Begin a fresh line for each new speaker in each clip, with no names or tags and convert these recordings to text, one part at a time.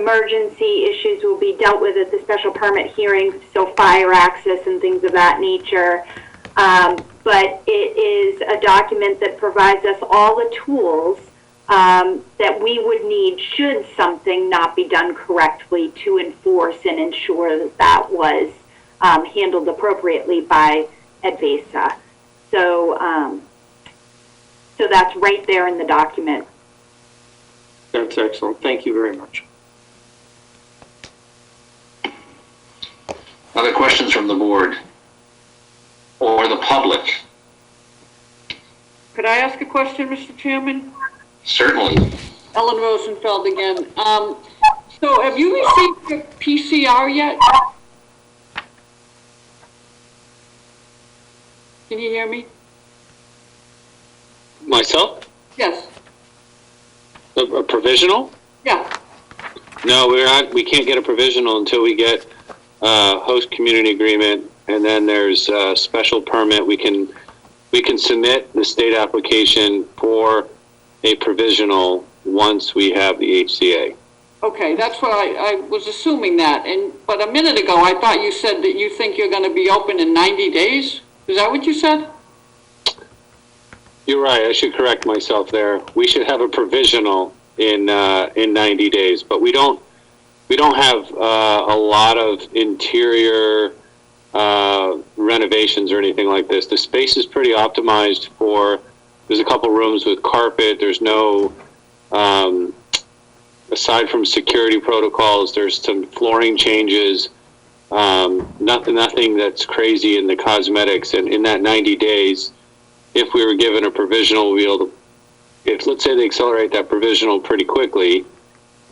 emergency issues will be dealt with at the special permit hearings, so fire access and things of that nature. Um, but it is a document that provides us all the tools um, that we would need should something not be done correctly to enforce and ensure that that was um, handled appropriately by Advesa. So, um, so that's right there in the document.
That's excellent. Thank you very much.
Other questions from the board or the public?
Could I ask a question, Mr. Chairman?
Certainly. Uh,
Ellen Rosenfeld again. Um, so have you received your PCR yet? Can you hear me?
Myself?
Yes,
A, a provisional?
yeah,
No, we're not, we can't get a provisional until we get uh, host community agreement, and then there's a special permit. We can we can submit the state application for a provisional once we have the HCA.
okay, that's what I, I was assuming that, and, but a minute ago, I thought you said that you think you're gonna be open in ninety days? Is that what you said?
You're right. I should correct myself there. We should have a provisional in uh, in 90 days, but we don't we don't have uh, a lot of interior uh, renovations or anything like this. The space is pretty optimized for. There's a couple rooms with carpet. There's no um, aside from security protocols. There's some flooring changes. Um, nothing, nothing that's crazy in the cosmetics. And in that 90 days, if we were given a provisional, we'll be able to, if, let's say they accelerate that provisional pretty quickly,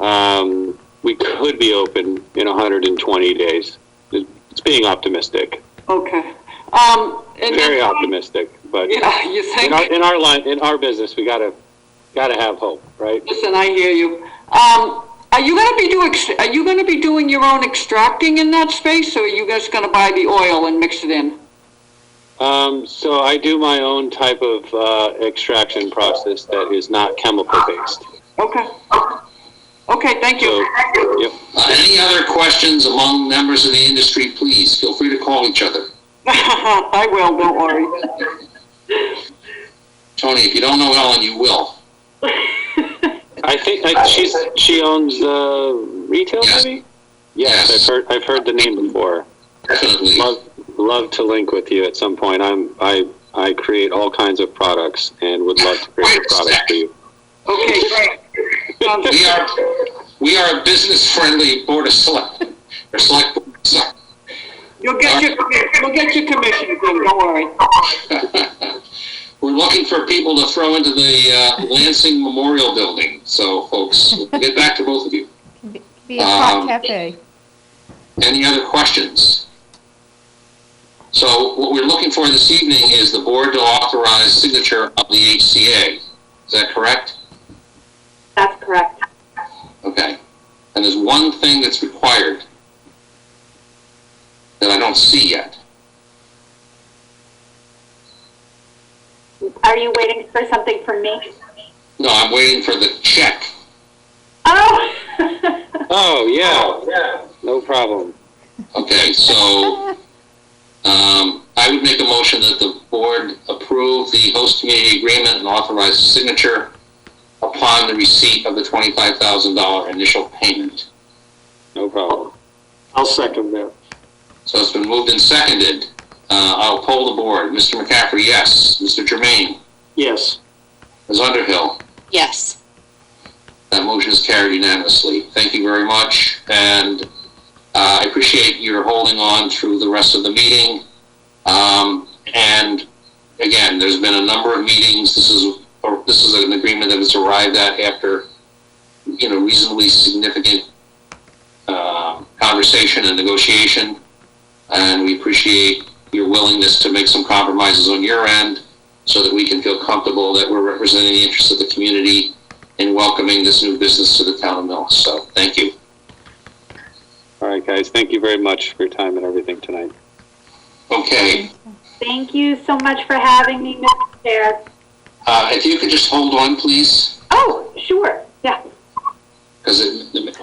um, we could be open in 120 days. It's being optimistic,
Okay, um, and.
very optimistic, but
Yeah, you
in our,
think?
in our line, in our business, we gotta, gotta have hope, right?
Listen, I hear you. Um, are you gonna be doing, are you gonna be doing your own extracting in that space, or are you guys gonna buy the oil and mix it in?
Um, so I do my own type of, uh, extraction process that is not chemical based.
Okay. Okay, thank
So,
you.
yep.
Uh, any other questions among members of the industry, please feel free to call each other.
I will, don't worry.
Tony, if you don't know Ellen, you will.
I think I, she's she owns uh, retail,
Yes.
maybe. Yes,
Yes.
I've heard I've heard the name before.
Definitely.
Love love to link with you at some point. I'm I I create all kinds of products and would love to create a product for you. Oh,
Okay, great. Sounds
We are, we are a business-friendly board of select, or select, board. select.
You'll get your, you'll get your commission, Jim, don't worry.
We're looking for people to throw into the uh, Lansing Memorial Building. So, folks, we'll get back to both of you.
Be a hot
Um,
cafe.
Any other questions? So what we're looking for this evening is the board to authorize signature of the HCA. Is that correct?
That's correct.
Okay. And there's one thing that's required that I don't see yet.
Are you waiting for something from me?
No, I'm waiting for the check.
Oh,
Oh yeah, no problem.
Okay, so um, I would make a motion that the board approve the host community agreement and authorize signature upon the receipt of the $25,000 initial payment.
No problem.
I'll second that.
So it's been moved and seconded. Uh, I'll poll the board. Mr. McCaffrey, yes. Mr. Jermaine,
Yes.
Ms. Underhill,
Yes.
that motion is carried unanimously. Thank you very much, and uh, I appreciate your holding on through the rest of the meeting. Um, and again, there's been a number of meetings. This is or this is an agreement that was arrived at after you know reasonably significant uh, conversation and negotiation, and we appreciate your willingness to make some compromises on your end so that we can feel comfortable that we're representing the interests of the community in welcoming this new business to the town of Mills. So thank you.
All right, guys. Thank you very much for your time and everything tonight.
Okay,
thank you so much for having me, Mr. Chair.
uh, if you could just hold on, please,
Oh, sure, yeah.
because it,